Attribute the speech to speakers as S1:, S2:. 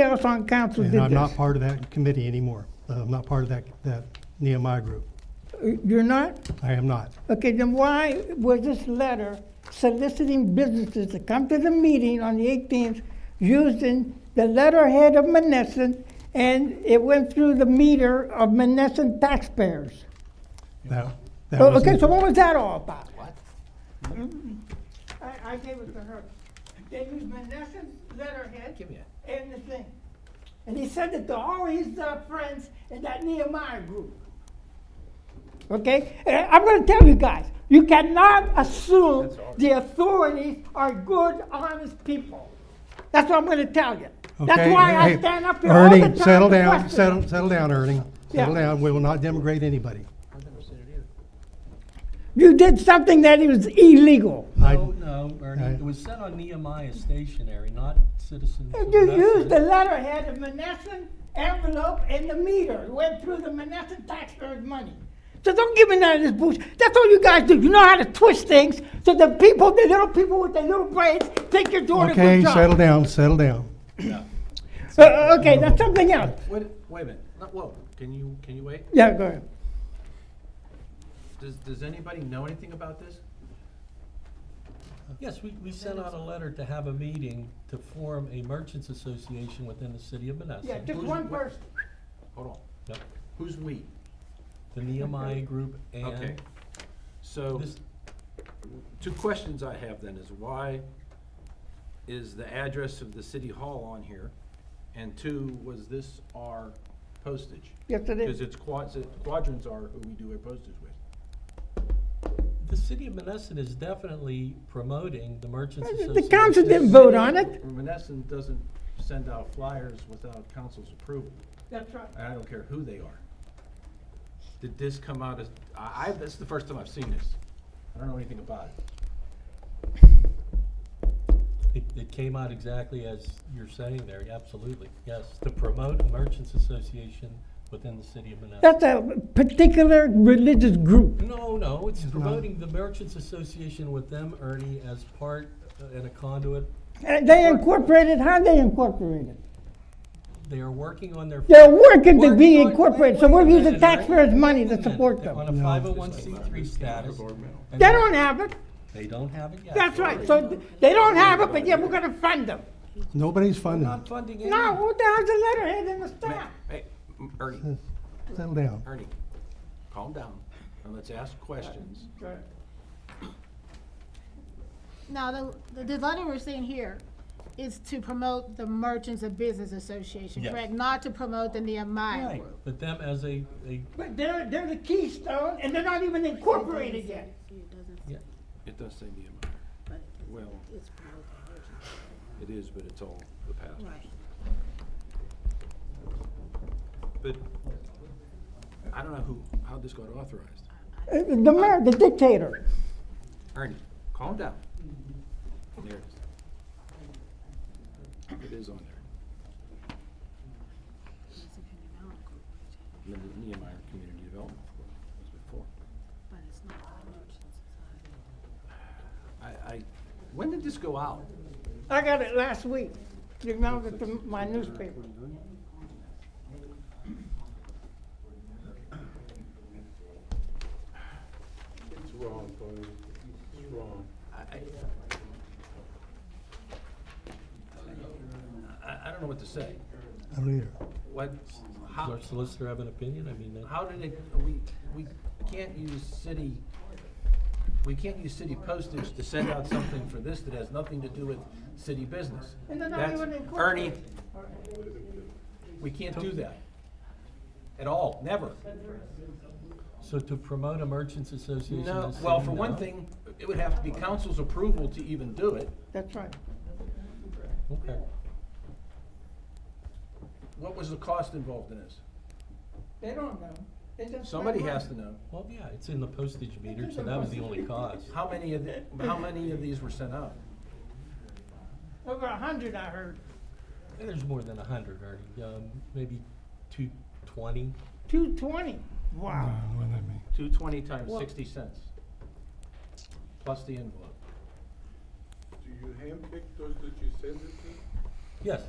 S1: else on council did
S2: And I'm not
S1: this?
S2: part of that committee anymore. Uh, I'm not part of that, that Nehemiah group.
S1: Uh, You're not?
S2: I am not.
S1: Okay, then why was this letter soliciting businesses to come to the meeting on the 18th using the letterhead of Menneson and it went through the meter of Menneson taxpayers?
S2: That, that
S1: Oh, Okay,
S2: was,
S1: so what was that all about? What? I, I gave it to her. They used Menneson letterhead.
S3: Give me that.
S1: And the thing. And he sent it to all his uh, friends in that Nehemiah group. Okay? And I'm going to tell you guys you cannot assume the authorities are good, honest people. That's what I'm going to tell you. That's
S2: okay,
S1: why I
S2: hey,
S1: stand up here all the time.
S2: Ernie, settle
S1: to
S2: down,
S1: question.
S2: settle, settle down, Ernie. Settle
S1: Yeah.
S2: down. We will not demigrate anybody.
S3: I've never seen it either.
S1: You did something that was illegal.
S2: I-
S3: No, no, Ernie,
S2: I-
S3: it was sent on Nehemiah stationery, not Citizens. of
S1: You
S3: Menneson.
S1: used the letterhead of Menneson envelope and the meter. It went through the Menneson taxpayers' money. So don't give me none of this bullshit. That's all you guys do. You know how to twist things so the people, the little people with the little brains, think you're doing a
S2: Okay,
S1: good job.
S2: settle down, settle down.
S1: Uh, uh, okay, that's something else.
S3: Wait, wait a minute, no, whoa, can you, can you wait?
S1: Yeah, go ahead.
S4: Does, does anybody know anything about this?
S3: Yes, we, we sent out a letter to have a meeting to form a merchants association within the city of Menneson.
S1: Yeah, just
S4: Who's-
S1: one person.
S4: Hold on,
S3: Yep.
S4: who's we?
S3: The Nehemiah group
S4: Okay.
S3: and
S4: So,
S3: this,
S4: two questions I have then is why is the address of the city hall on here? And two, was this our postage?
S1: Yes, it
S4: Because
S1: is.
S4: it's quads, quadrants are who we do our postage with.
S3: the city of Menneson is definitely promoting the merchants association.
S1: The council didn't vote on it.
S4: Menneson doesn't send out flyers without council's approval.
S1: That's right.
S4: and I don't care who they are. Did this come out as, I, I, this is the first time I've seen this. I don't know anything about it.
S3: It, it came out exactly as you're saying there, absolutely, yes, to promote a merchants association within the city of Menneson.
S1: That's a particular religious group.
S3: No, no, it's promoting the merchants association with them, Ernie, as part uh, and a conduit.
S1: And they incorporated, how they incorporated?
S3: They are working on their.
S1: They're working to be
S3: Working on-
S1: incorporated, so
S3: wait,
S1: we're
S3: wait a
S1: using
S3: minute, Ernie.
S1: taxpayers' money to
S3: Wait a minute.
S1: support
S3: They're On
S1: them.
S3: a five oh one C three status. and
S1: They don't have it.
S3: They don't have it yet.
S1: That's right, so th- they don't have it, but yeah, we're gonna fund them.
S2: Nobody's funding.
S3: Not funding any.
S1: No, what the hell's the letterhead in the staff?
S4: Hey, m-
S1: Hmm.
S4: Ernie,
S2: Settle down.
S4: Ernie, calm down, and let's ask questions.
S5: Now, the- the, the letter we're seeing here is to promote the Merchants and Business Association,
S3: Yes.
S5: correct? Not to promote the Nehemiah
S3: Right,
S5: group.
S3: but them as a, a,
S1: But they're, they're the keystone, and they're not even incorporated yet.
S3: yeah,
S4: It does say Nehemiah. Well, it is, but it's all the past. But I don't know who, how this got authorized.
S1: Uh, The mayor, the dictator.
S4: Ernie, calm down. There it is. It is on there. The Nehemiah Community Development Authority, was before. I, I, when did this go out?
S1: I got it last week, you know, with the- my newspaper.
S6: It's wrong, Tony. It's wrong.
S4: I, I, I- I don't know what to say.
S2: I don't either.
S4: What,
S3: does
S4: how,
S3: our solicitor have an opinion? I mean, that-
S4: how did it, we, we can't use city, we can't use city postage to send out something for this that has nothing to do with city business.
S1: And they're not
S4: That's-
S1: even incorporated.
S4: Ernie, we can't do that at all, never.
S3: so to promote a merchants association.
S4: No,
S3: as
S4: well,
S3: saying
S4: for one
S3: no?
S4: thing, it would have to be council's approval to even do it.
S1: That's right.
S3: Okay,
S4: What was the cost involved in this?
S1: They don't know. They just spend
S4: Somebody has
S1: money.
S4: to know.
S3: well, yeah, it's in the postage meter, so that was the only cause.
S4: How many of, the- how many of these were sent out?
S1: Over a hundred, I heard.
S3: There's more than a hundred, Ernie, um, maybe two twenty.
S1: Two twenty. Wow.
S2: Uh, what did that mean?
S4: Two twenty times
S3: Well-
S4: sixty cents, plus the envelope.
S6: Do you handpick those that you send it to?
S3: Yes,